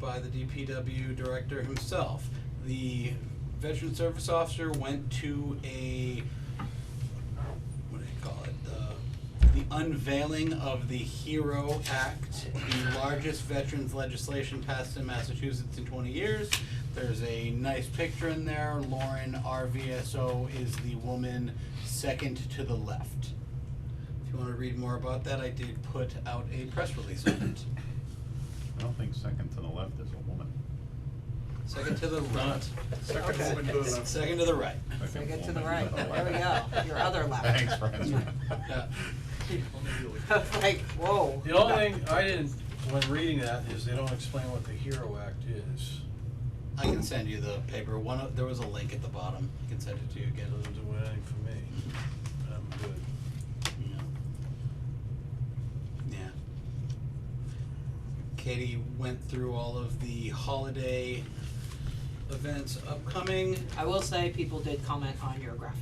by the DPW director himself. The veteran service officer went to a, what do they call it, the, the unveiling of the HERO Act, the largest veterans legislation passed in Massachusetts in twenty years. There's a nice picture in there, Lauren RVSO is the woman second to the left. If you wanna read more about that, I did put out a press release on it. I don't think second to the left is a woman. Second to the right. Second woman to the left. Second to the right. Second to the woman right. There we left. go. Your other left. Thanks, Francis. Yeah. Like, whoa. The only thing I didn't, when reading that, is they don't explain what the HERO Act is. I can send you the paper. One, of- there was a link at the bottom. I can send it to you It again. doesn't do anything for me. I'm good. Yeah. Yeah. Katie went through all of the holiday events upcoming. I will say, people did comment on your graphic.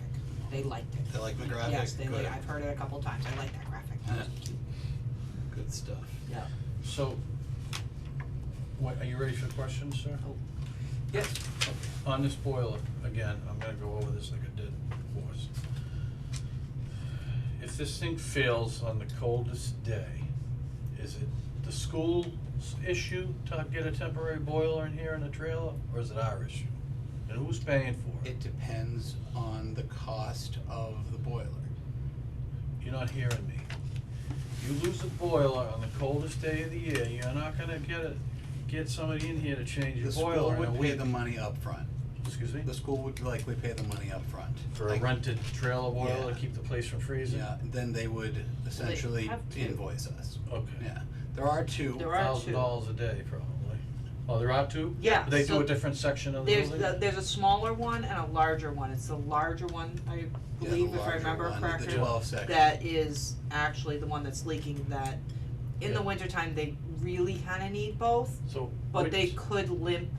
They liked it. They like my graphic? Yes, they Good. like, I've heard it a couple times. I like that graphic. Yeah. Uh, Good stuff. Yeah. So, what, are you ready for questions, sir? Oh. Yes. On this boiler, again, I'm gonna go over this like I did before. If this thing fails on the coldest day, is it the school's issue to get a temporary boiler in here in a trailer, or is it our issue? And who's paying for it? It depends on the cost of the boiler. You're not hearing me. You lose a boiler on the coldest day of the year, you're not gonna get a, get somebody in here to change your The school boiler in a would pay week. the money upfront. Excuse me? The school would likely pay the money upfront. For a Like- rented trailer boiler Yeah. to keep the place from freezing? Yeah, and then they would essentially have to. invoice us. Okay. Yeah, there are two. There are- thousand dollars a day probably. Oh, there are two? Yeah, They do so a different section of the There's, building? the- there's a smaller one and a larger one. It's the larger one, I Yeah, the believe, if I larger remember one, correctly. The twelve section. that is actually the one that's leaking that in the Yeah. wintertime, they really kinda need both, So. but which- they could limp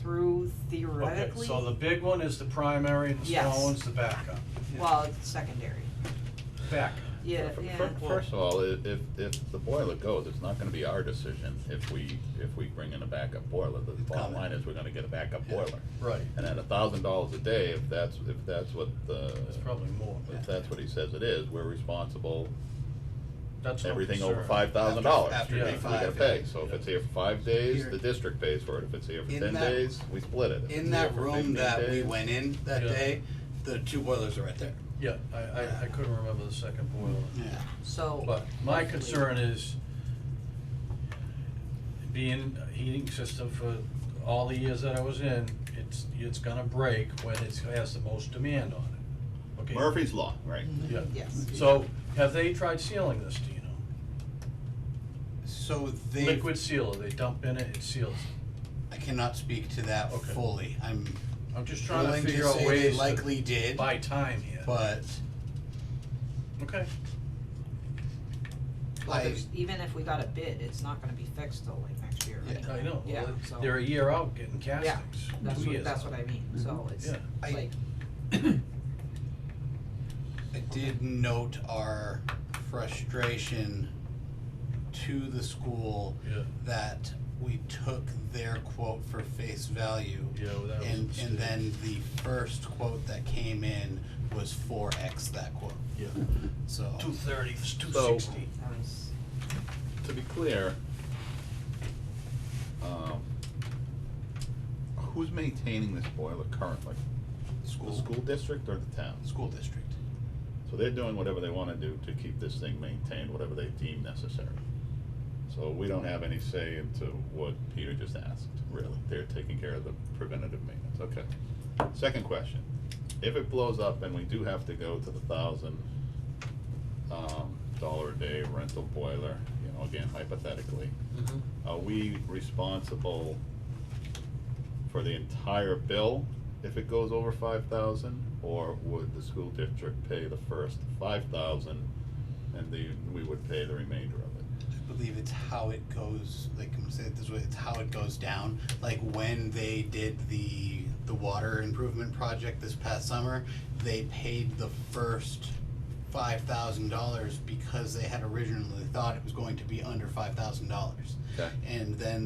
through Okay, theoretically. so the big one is the primary and the Yes. small one's the backup. Well, it's secondary. Backup. Yeah, Fir- yeah. fir- First of all, i- if, if the boiler goes, it's not gonna be our decision if we, if we bring in a backup boiler. The bottom coming. line is we're gonna get a backup boiler. Right. And at a thousand dollars a day, if that's, if that's what the, That's probably more, but if that's what he says it is, we're responsible. that's what I'm Everything over concerned. five thousand dollars, After- we after we day gotta five, pay. yeah. So if it's here for five days, Here. the district pays for it. If it's here for In ten that- days, we split it. If In it's here that for room 15 that we days- went in that Yeah. day, the two boilers are right there. Yeah, I, I, I couldn't remember the second boiler. Yeah. So. But my hopefully- concern is being a heating system for all the years that I was in, it's, it's gonna break when it's, has the most demand on it. Okay. Murphy's Law, right? Mm-hmm. Yeah. Yes. So have they tried sealing this, do you know? So they. Liquid sealer, they dump in it, it seals. I cannot speak to that Okay. fully. I'm I'm just trying to willing figure to out say they ways likely to did, buy time here. but Okay, Well, I, there's- even if we got a bid, it's not gonna be fixed till like next year. Yeah. anyway. I know, Yeah, well, so- they're a year out getting castings, That's two what, years that's out. what I mean, so it's Yeah. I- like, I did note our frustration to the school Yeah. that we took their quote for face value. Yeah, well, that was a And, and mistake. then the first quote that came in was four X that quote, Yeah. so. Two thirty, two So- sixty. E that was, to be clear, um, who's maintaining this boiler currently? The school district or the town? School district. So they're doing whatever they wanna do to keep this thing maintained, whatever they deem necessary. So we don't have any say into what Peter just asked, really. They're taking care of the preventative maintenance, okay. Second question, if it blows up and we do have to go to the thousand, um, dollar a day rental boiler, you know, again hypothetically, are we responsible for the entire bill if it goes over five thousand? Or would the school district pay the first five thousand and the, we would pay the remainder of it? I believe it's how it goes, like, I'm gonna say it this way, it's how it goes down. Like, when they did the, the water improvement project this past summer, they paid the first five thousand dollars because they had originally thought it was going to be under five thousand dollars. Okay. And then